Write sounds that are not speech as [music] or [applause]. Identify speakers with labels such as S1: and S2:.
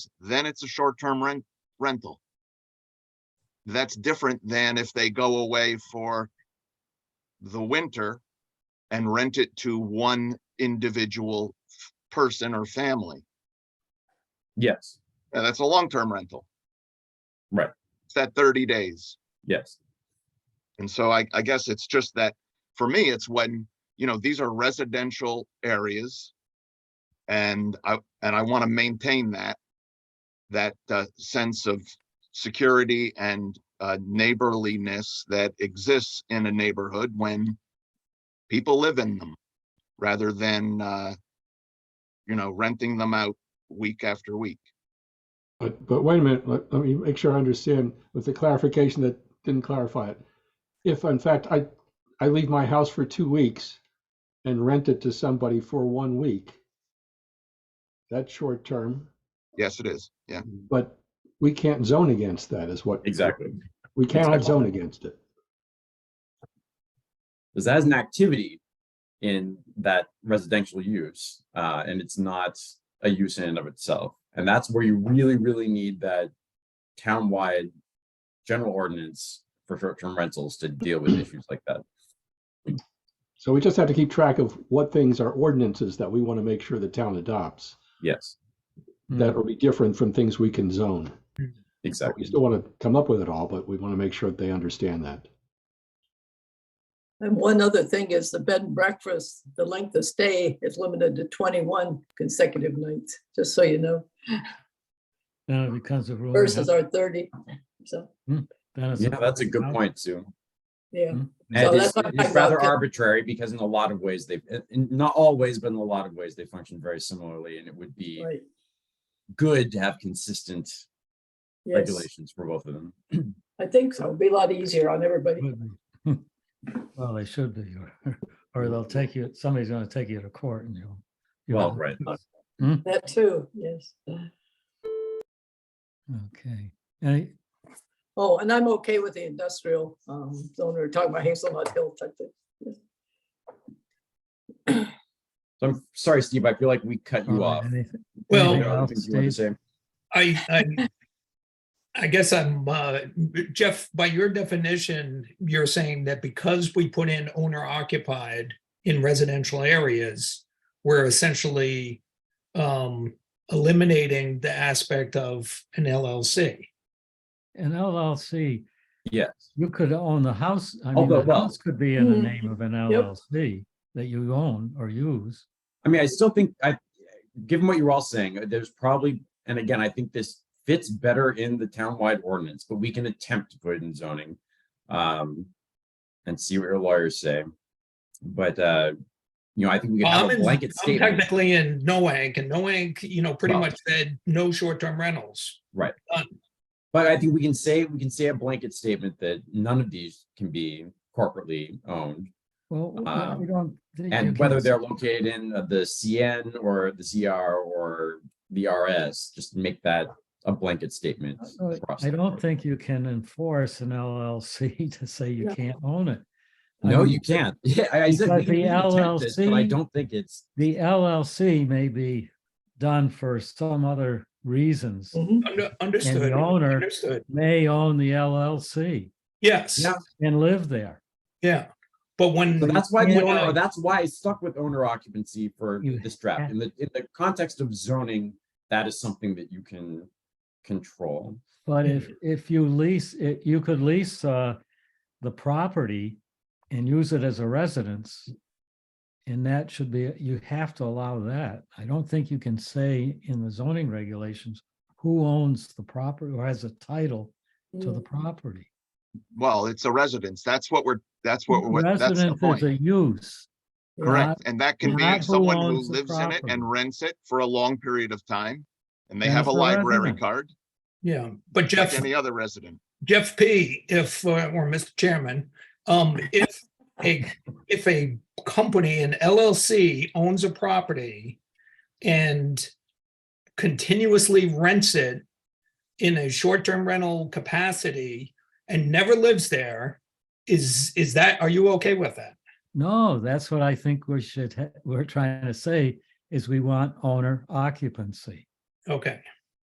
S1: then it's a short-term rent, rental. That's different than if they go away for the winter and rent it to one individual f- person or family.
S2: Yes,
S1: And that's a long-term rental.
S2: Right.
S1: It's that thirty days.
S2: yes,
S1: And so I, I guess it's just that, for me, it's when, you know, these are residential areas. And I, and I want to maintain that, that uh, sense of security and uh, neighborliness that exists in a neighborhood when people live in them, rather than, uh, you know, renting them out week after week.
S3: But, but wait a minute, let, let me make sure I understand with the clarification that didn't clarify it. If in fact I, I leave my house for two weeks and rent it to somebody for one week, that's short term,
S1: Yes, it is. Yeah,
S3: but we can't zone against that is what.
S2: exactly.
S3: We cannot
S2: Exactly.
S3: zone against it.
S2: Because that is an activity in that residential use, uh, and it's not a use in and of itself. And that's where you really, really need that townwide general ordinance for short-term rentals to deal
S4: [clears throat]
S2: with issues like that.
S3: So we just have to keep track of what things are ordinances that we want to make sure the town adopts
S2: Yes,
S5: Mm-hmm.
S3: that will be different from things we can zone. We
S2: exactly.
S3: still want to come up with it all, but we want to make sure that they understand that.
S4: And one other thing is the bed and breakfast, the length of stay is limited to 21 consecutive nights, just so you know,
S5: Then it becomes a rule.
S4: versus our 30. So,
S2: Yeah, that's a good point, Sue.
S4: yeah. So
S2: And it's,
S4: that's what I'm
S2: it's
S4: talking about,
S2: rather
S4: yeah.
S2: arbitrary because in a lot of ways they've, in- in- not always, but in a lot of ways they function very similarly and it would be
S4: Right.
S2: good to have consistent
S4: Yes,
S2: regulations for both of them.
S4: I think so. It'd be a lot easier on everybody.
S5: [laughs] Well, they should be, or- or they'll take you, somebody's gonna take you to court and you'll. you'll
S2: Well,
S5: have-
S2: right.
S4: That too, yes.
S5: Okay, any,
S4: Oh, and I'm okay with the industrial um, zone. We We're talking about Hazelnut Hill type thing.
S2: So I'm sorry, Steve, I feel like we cut you
S5: all right,
S2: off.
S5: anything-
S6: Well-
S5: Oh, anything
S2: Anything else
S5: else,
S2: you wanted to
S5: Steve?
S2: say?
S6: I, I, I guess I'm, uh, Jeff, by your definition, you're saying that because we put in owner occupied in residential areas, we're essentially, um, eliminating the aspect of an LLC.
S5: An LLC,
S2: Yes,
S5: you could own the house, I mean,
S2: Although,
S5: the
S2: well-
S5: house could be in the
S4: Mm,
S5: name of an LLC that you own or use.
S2: I mean, I still think I, given what you're all saying, uh, there's probably, and again, I think this fits better in the townwide ordinance, but we can attempt to put it in zoning. Um, and see what your lawyers say. But, uh, you know, I think we can
S6: Well, I'm
S2: have a
S6: in-
S2: blanket
S6: I'm
S2: statement.
S6: technically in Noank and Noank, you know, pretty
S2: Well-
S6: much said no short-term rentals.
S2: But I think we can say, we can say a blanket statement that none of these can be corporately owned.
S5: Well, we- we
S2: Um,
S5: don't. you
S2: And
S5: can't
S2: whether
S5: s-
S2: they're located in uh, the CN or the CR or the RS, just make that a blanket statement.
S5: Uh,
S2: across
S5: I
S2: the
S5: don't
S2: board.
S5: think you can enforce an LLC [laughs] to say you
S4: Yeah.
S5: can't own it. I
S2: No,
S5: mean,
S2: you can't. [laughs] Yeah, I I said.
S5: Because
S2: we can
S5: the
S2: attempt this, But I
S5: LLC
S2: don't think it's,
S5: The LLC may be done for some other reasons,
S4: Mhm.
S6: Under- Understood,
S5: owner-
S6: understood.
S5: may own the LLC
S6: Yes,
S2: Yeah.
S5: and live there.
S6: yeah. But
S5: Mm,
S6: when.
S2: so that's why the
S6: when I-
S2: owner, that's why I stuck with owner occupancy for
S5: You
S2: this draft.
S5: have-
S2: In the, in the context of zoning, that is something that you can control.
S5: But if, if you lease it, you could lease, uh, the property and use it as a residence. And that should be, you have to allow that. I don't think you can say in the zoning regulations who owns the property or has a title to the
S4: Mm.
S5: property.
S1: well, it's a residence. That's what we're, that's what, we're. that's the
S5: Residence is
S1: point.
S5: a use.
S4: Yeah.
S1: Correct, and that can
S5: not
S1: be
S5: who
S1: someone who
S5: owns the
S1: lives in it
S5: property.
S1: and rents it for a long period of time. And they
S5: Then
S1: have a
S5: it's a
S1: library
S5: resident.
S1: card,
S6: Yeah, but
S1: like
S6: Jeff.
S1: any other resident.
S6: Jeff P., if, uh, or Mr. Chairman, um, if a, if a company, an LLC owns a property and continuously rents it in a short-term rental capacity and never lives there, is, is that, are you okay with that?
S5: No, that's what I think we should, ha- we're trying to say is we want owner occupancy.
S6: Okay,